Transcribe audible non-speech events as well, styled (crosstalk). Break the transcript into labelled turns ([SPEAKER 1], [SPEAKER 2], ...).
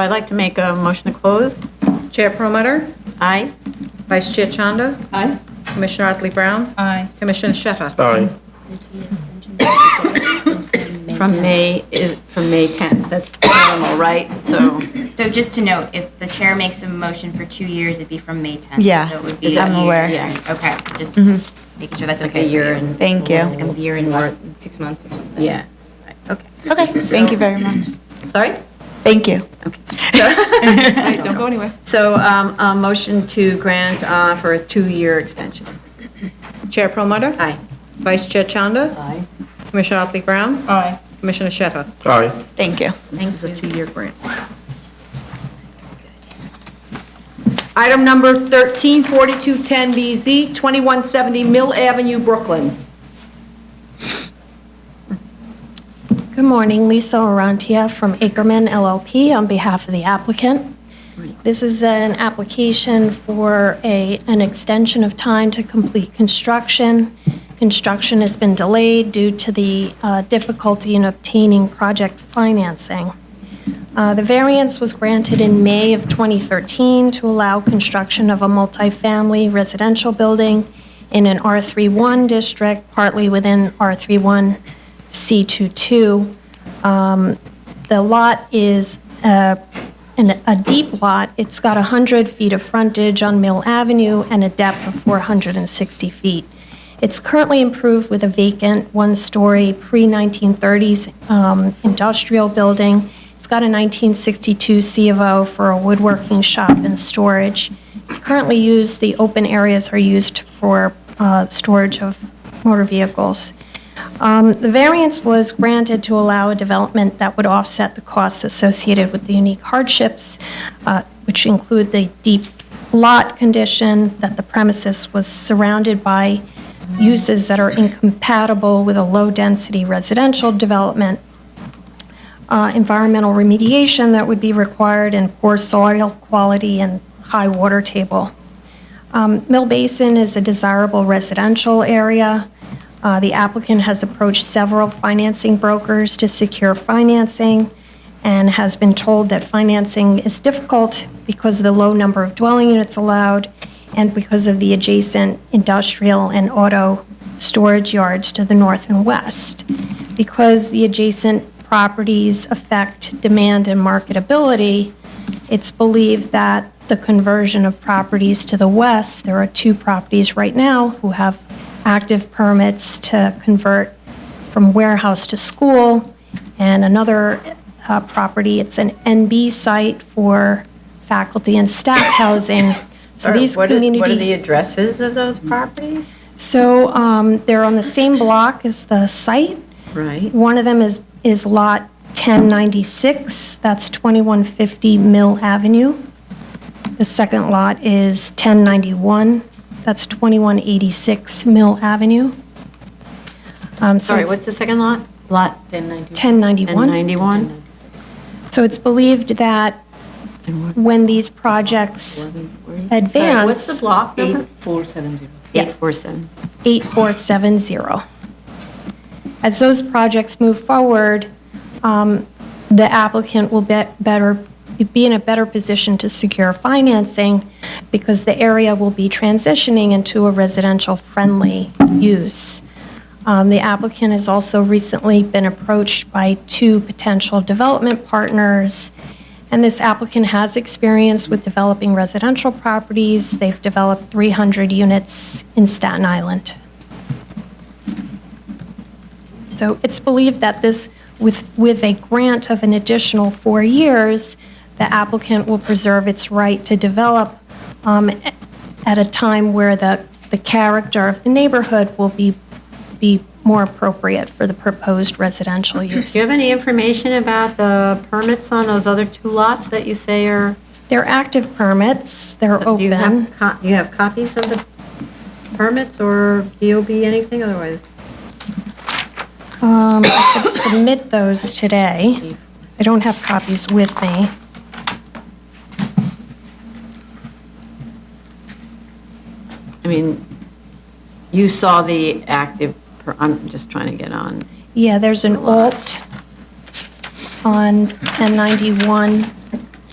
[SPEAKER 1] I'd like to make a motion to close.
[SPEAKER 2] Chair Promoter,
[SPEAKER 1] Aye.
[SPEAKER 2] Vice Chair Chanda,
[SPEAKER 1] Aye.
[SPEAKER 2] Commissioner Otley Brown,
[SPEAKER 3] Aye.
[SPEAKER 2] Commissioner Shepherd.
[SPEAKER 4] Aye.
[SPEAKER 1] From May, is, from May 10th, that's normal, right?
[SPEAKER 2] (coughs)
[SPEAKER 1] So,
[SPEAKER 5] So just to note, if the chair makes a motion for two years, it'd be from May 10th.
[SPEAKER 6] Yeah,
[SPEAKER 5] So it would be.
[SPEAKER 6] I'm
[SPEAKER 5] a year.
[SPEAKER 6] aware.
[SPEAKER 1] Yeah.
[SPEAKER 5] Okay, just making sure that's okay.
[SPEAKER 1] a
[SPEAKER 5] for
[SPEAKER 1] year
[SPEAKER 5] you.
[SPEAKER 1] and-
[SPEAKER 6] Mm-hmm. Thank you.
[SPEAKER 5] Like a year and less than six months or something.
[SPEAKER 1] yeah, okay.
[SPEAKER 6] Okay, thank you very much.
[SPEAKER 1] (laughs) Sorry?
[SPEAKER 6] Thank you.
[SPEAKER 2] Wait, Don't go anywhere.
[SPEAKER 1] So, um, a motion to grant, uh, for a two-year extension.
[SPEAKER 2] Chair Promoter,
[SPEAKER 1] Aye.
[SPEAKER 2] Vice Chair Chanda,
[SPEAKER 1] Aye.
[SPEAKER 2] Commissioner Otley Brown,
[SPEAKER 3] Aye.
[SPEAKER 2] Commissioner Shepherd.
[SPEAKER 4] Aye.
[SPEAKER 6] Thank you.
[SPEAKER 2] This is a two-year grant.
[SPEAKER 7] Item number 13, 4210BZ, 2170 Mill Avenue, Brooklyn.
[SPEAKER 8] Good morning, Lisa Orantia from Ackerman LLP on behalf of the applicant. This is an application for a, an extension of time to complete construction. Construction has been delayed due to the uh, difficulty in obtaining project financing. Uh, The variance was granted in May of 2013 to allow construction of a multifamily residential building in an R31 district, partly within R31 C22. Um, The lot is uh, an- a deep lot. It's got 100 feet of frontage on Mill Avenue and a depth of 460 feet. It's currently improved with a vacant, one-story, pre-1930s um, industrial building. It's got a 1962 C of O for a woodworking shop and storage. Currently used, the open areas are used for uh, storage of motor vehicles. Um, The variance was granted to allow a development that would offset the costs associated with the unique hardships, uh, which include the deep lot condition, that the premises was surrounded by uses that are incompatible with a low-density residential development, uh, environmental remediation that would be required, and poor soil quality and high water table. Um, Mill Basin is a desirable residential area. Uh, The applicant has approached several financing brokers to secure financing and has been told that financing is difficult because of the low number of dwelling units allowed and because of the adjacent industrial and auto storage yards to the north and west. Because the adjacent properties affect demand and marketability, it's believed that the conversion of properties to the west, there are two properties right now who have active permits to convert from warehouse to school, and another uh, property, it's an NB site for faculty and staff housing. So these
[SPEAKER 1] What are-
[SPEAKER 8] community.
[SPEAKER 1] What are the addresses of those properties?
[SPEAKER 8] So um, they're on the same block as the site.
[SPEAKER 1] Right.
[SPEAKER 8] One of them is, is Lot 1096, that's 2150 Mill Avenue. The second lot is 1091, that's 2186 Mill Avenue. Um, so
[SPEAKER 1] Sorry,
[SPEAKER 8] it's
[SPEAKER 1] what's the second lot? Lot 1091?
[SPEAKER 8] 1091.
[SPEAKER 1] 1091?
[SPEAKER 8] So it's believed that
[SPEAKER 1] And what-
[SPEAKER 8] when these projects
[SPEAKER 1] Sorry, What's the
[SPEAKER 8] advance,
[SPEAKER 1] block number?
[SPEAKER 3] 470.
[SPEAKER 8] Yeah.
[SPEAKER 1] 847.
[SPEAKER 8] 8470. As those projects move forward, um, the applicant will be better, be in a better position to secure financing because the area will be transitioning into a residential-friendly use. Um, The applicant has also recently been approached by two potential development partners, and this applicant has experience with developing residential properties. They've developed 300 units in Staten Island. So it's believed that this, with, with a grant of an additional four years, the applicant will preserve its right to develop um, a- at a time where the, the character of the neighborhood will be, be more appropriate for the proposed residential use.
[SPEAKER 1] Do you have any information about the permits on those other two lots that you say are?
[SPEAKER 8] They're active permits, they're
[SPEAKER 1] Do you have,
[SPEAKER 8] open.
[SPEAKER 1] co- do you have copies of the permits or DOB, anything otherwise?
[SPEAKER 8] Um, I could submit those today. I don't have copies with me.
[SPEAKER 1] I mean, you saw the active, per- I'm just trying to get on.
[SPEAKER 8] Yeah, there's an alt on 1091